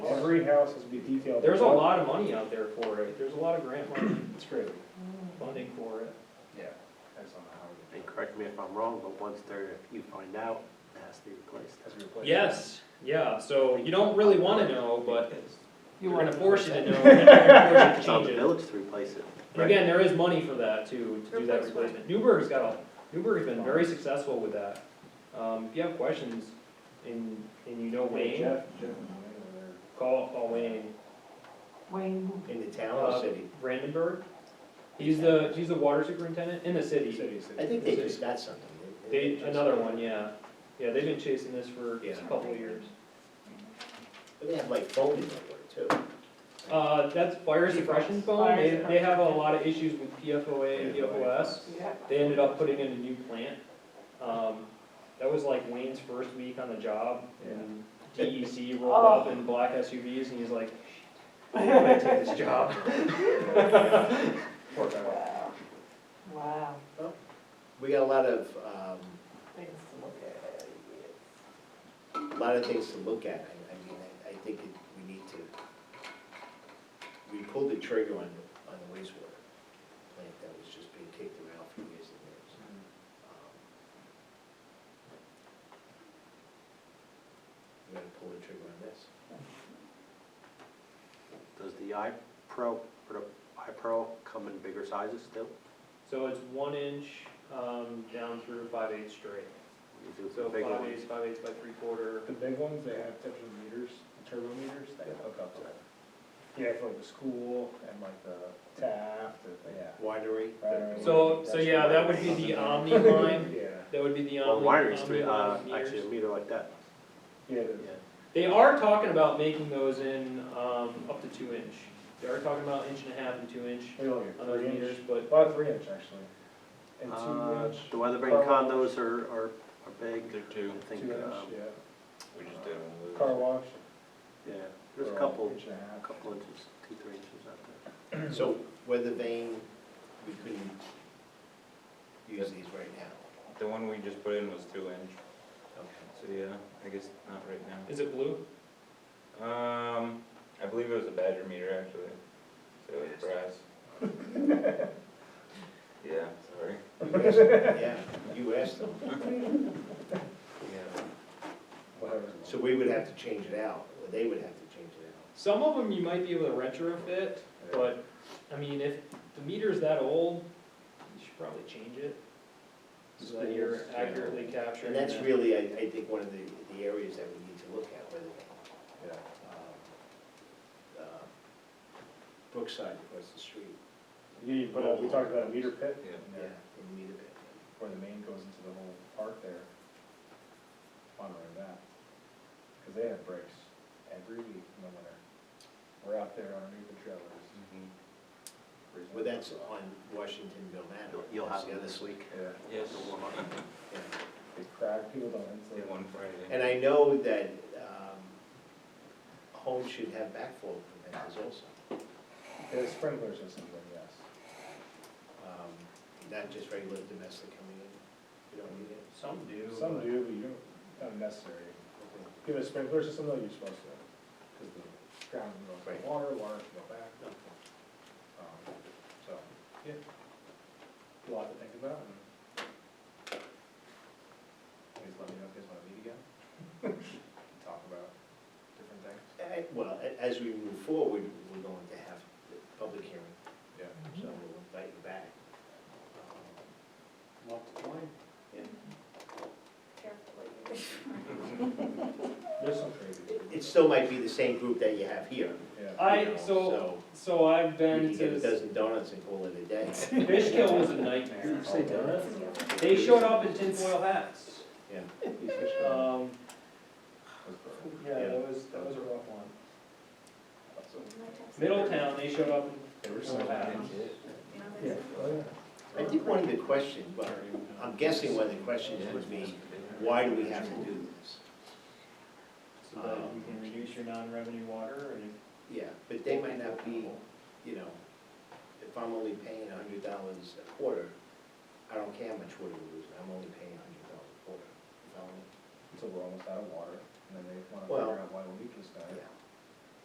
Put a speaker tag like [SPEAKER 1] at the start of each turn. [SPEAKER 1] three houses be detailed.
[SPEAKER 2] There's a lot of money out there for it, there's a lot of grant money
[SPEAKER 1] It's crazy.
[SPEAKER 2] funding for it.
[SPEAKER 1] Yeah. I just don't know how we
[SPEAKER 3] And correct me if I'm wrong, but once there, you find out, it has to be replaced.
[SPEAKER 1] As we replace.
[SPEAKER 2] Yes, yeah, so you don't really wanna know, but
[SPEAKER 4] You
[SPEAKER 2] they're
[SPEAKER 4] want
[SPEAKER 2] gonna force you to know, and they're gonna force
[SPEAKER 3] It's
[SPEAKER 2] you
[SPEAKER 3] on
[SPEAKER 2] to change
[SPEAKER 3] the
[SPEAKER 2] it.
[SPEAKER 3] village to replace it.
[SPEAKER 2] And again, there is money for that too, to do that
[SPEAKER 4] Replace what?
[SPEAKER 2] replacement. Newburgh's got a, Newburgh's been very successful with that. Um, if you have questions and, and you know Wayne,
[SPEAKER 1] Jeff, Jeff and Wayne
[SPEAKER 2] call, call Wayne Uh,
[SPEAKER 4] Wayne,
[SPEAKER 5] In the town or city?
[SPEAKER 2] Brandenburg. He's the, he's the water superintendent in the
[SPEAKER 1] are-
[SPEAKER 2] city.
[SPEAKER 1] City, city.
[SPEAKER 5] I think they just got something.
[SPEAKER 2] They, another one, yeah. Yeah, they've been chasing this for a
[SPEAKER 5] Yeah.
[SPEAKER 2] couple of years.
[SPEAKER 5] But They have like phone in there too.
[SPEAKER 2] Uh, that's fire suppression foam,
[SPEAKER 4] Fire
[SPEAKER 2] they, they have a
[SPEAKER 4] suppression.
[SPEAKER 2] lot of issues with PFOA and PFOS.
[SPEAKER 4] yeah.
[SPEAKER 2] They ended up putting in a new plant. Um, that was like Wayne's first week on the job, and DEC rolled up in black SUVs, and he's like, "Shit, I might take this job.
[SPEAKER 1] Poor guy.
[SPEAKER 4] Wow, wow,
[SPEAKER 5] We got a lot of, um,
[SPEAKER 4] things to look at.
[SPEAKER 5] a lot of things to look at. I, I mean, I, I think it- we need to, we pulled the trigger on, the- on the wastewater plant that was just being kicked around for years and years. We gotta pull the trigger on this.
[SPEAKER 3] Does the iPro, or the iPro come in bigger sizes still?
[SPEAKER 2] So it's one inch, um, down through five eighths straight.
[SPEAKER 3] You do
[SPEAKER 2] So
[SPEAKER 5] uh,
[SPEAKER 3] big
[SPEAKER 2] five
[SPEAKER 3] ones.
[SPEAKER 2] eighths, five eighths by three quarter.
[SPEAKER 1] The big ones, they have different meters, turbo meters, they hook up to. Yeah, for like the school and like the Taft, and- yeah.
[SPEAKER 5] Winery.
[SPEAKER 1] Winery.
[SPEAKER 2] So, so yeah, that would be the Omni line,
[SPEAKER 1] Yeah,
[SPEAKER 2] that would be the
[SPEAKER 3] Well,
[SPEAKER 2] Omni,
[SPEAKER 3] wineries,
[SPEAKER 2] Omni
[SPEAKER 3] three, uh,
[SPEAKER 2] line
[SPEAKER 3] actually a
[SPEAKER 2] meters.
[SPEAKER 3] meter like that.
[SPEAKER 1] yeah,
[SPEAKER 3] Yeah.
[SPEAKER 1] the-
[SPEAKER 2] They are talking about making those in, um, up to two inch. They are talking about inch and a half and two inch
[SPEAKER 1] we don't get
[SPEAKER 2] on those
[SPEAKER 1] three
[SPEAKER 2] meters,
[SPEAKER 1] inch,
[SPEAKER 2] but
[SPEAKER 1] about three inch actually. And
[SPEAKER 3] Uh,
[SPEAKER 1] two inch,
[SPEAKER 3] The Weatherbrink condos are, are, are big.
[SPEAKER 6] There too,
[SPEAKER 3] I think,
[SPEAKER 1] two inch,
[SPEAKER 3] um,
[SPEAKER 1] yeah,
[SPEAKER 6] we just did one of those.
[SPEAKER 1] car wash.
[SPEAKER 3] yeah, there's a
[SPEAKER 1] or
[SPEAKER 3] couple,
[SPEAKER 1] Inch and a
[SPEAKER 3] a
[SPEAKER 1] half.
[SPEAKER 3] couple inches, two, three inches out there.
[SPEAKER 5] So weather vane, we couldn't use these right now.
[SPEAKER 6] The one we just put in was two inch,
[SPEAKER 5] Okay.
[SPEAKER 6] so yeah, I guess not right now.
[SPEAKER 2] is it blue?
[SPEAKER 6] Um, I believe it was a Badger meter actually, so it was brass. Yeah, sorry.
[SPEAKER 5] You asked- Yeah, you asked them. Yeah.
[SPEAKER 1] Whatever.
[SPEAKER 5] So we would have to change it out, or they would have to change it out.
[SPEAKER 2] Some of them you might be able to retrofit, but, I mean, if the meter's that old, you should probably change it. So that you're accurately capturing
[SPEAKER 5] And that's
[SPEAKER 2] that.
[SPEAKER 5] really, I, I think, one of the, the areas that we need to look at, whether,
[SPEAKER 1] Yeah.
[SPEAKER 5] um, uh, Brookside across the street.
[SPEAKER 1] Yeah, you put a, uh, we talked about a meter pit
[SPEAKER 6] Yeah.
[SPEAKER 1] in there,
[SPEAKER 5] In need of it.
[SPEAKER 1] where the main goes into the whole park there. Monitoring that, because they have breaks every week in the winter. We're out there underneath the trailers.
[SPEAKER 6] Mhm.
[SPEAKER 1] freezing.
[SPEAKER 5] Mm-hmm. Well, that's on Washingtonville Manor.
[SPEAKER 3] You'll- You'll
[SPEAKER 5] That's
[SPEAKER 3] have it
[SPEAKER 5] the other-
[SPEAKER 3] this week.
[SPEAKER 1] Yeah,
[SPEAKER 6] Yes,
[SPEAKER 5] yeah.
[SPEAKER 1] they crack, people don't
[SPEAKER 6] did
[SPEAKER 1] insulate.
[SPEAKER 6] one Friday.
[SPEAKER 5] And I know that um, homes should have backflow preventers also,
[SPEAKER 1] The sprinkler system, then, yes.
[SPEAKER 5] Um, not just regular domestic coming in. You don't need it.
[SPEAKER 2] Some do.
[SPEAKER 5] uh,
[SPEAKER 1] Some
[SPEAKER 2] but-
[SPEAKER 1] do, but you don't, not necessary. Give a sprinkler system, though, you're supposed to, because the ground can
[SPEAKER 5] Right.
[SPEAKER 1] go water, water can go back,
[SPEAKER 5] No.
[SPEAKER 1] um, so, yeah. A lot to think about, and please let me know if you guys wanna meet again. Talk about different things.
[SPEAKER 5] Eh, Well, a- as we move forward, we're going to have the public hearing,
[SPEAKER 1] Yeah.
[SPEAKER 5] so we'll invite you back.
[SPEAKER 1] There's some crazy.
[SPEAKER 5] It still might be the same group that you have here.
[SPEAKER 1] Yeah.
[SPEAKER 2] I-
[SPEAKER 5] you know,
[SPEAKER 2] so- So I've
[SPEAKER 5] You can
[SPEAKER 2] been
[SPEAKER 5] get
[SPEAKER 2] to,
[SPEAKER 5] a dozen donuts and call it a day.
[SPEAKER 2] Fishkill was a nightmare. They showed up in tinfoil hats.
[SPEAKER 5] Yeah.
[SPEAKER 2] Um, yeah,
[SPEAKER 5] Yeah.
[SPEAKER 2] that was, that was a rough one. Middletown, they showed up in
[SPEAKER 1] They were
[SPEAKER 2] tinfoil hats.
[SPEAKER 1] Yeah.
[SPEAKER 5] I think one of the questions, well, I'm guessing one of the questions would be, why do we have to do this?
[SPEAKER 2] So that you can reduce your non-revenue water and.
[SPEAKER 5] Yeah, um, but they might not be, you know, if I'm only paying a hundred dollars a quarter, I don't care how much water we're losing, I'm only paying a hundred dollars a quarter. If I'm only-
[SPEAKER 1] Until we're almost out of water, and then they wanna
[SPEAKER 5] Well-
[SPEAKER 1] figure out why the leak is down.
[SPEAKER 5] yeah.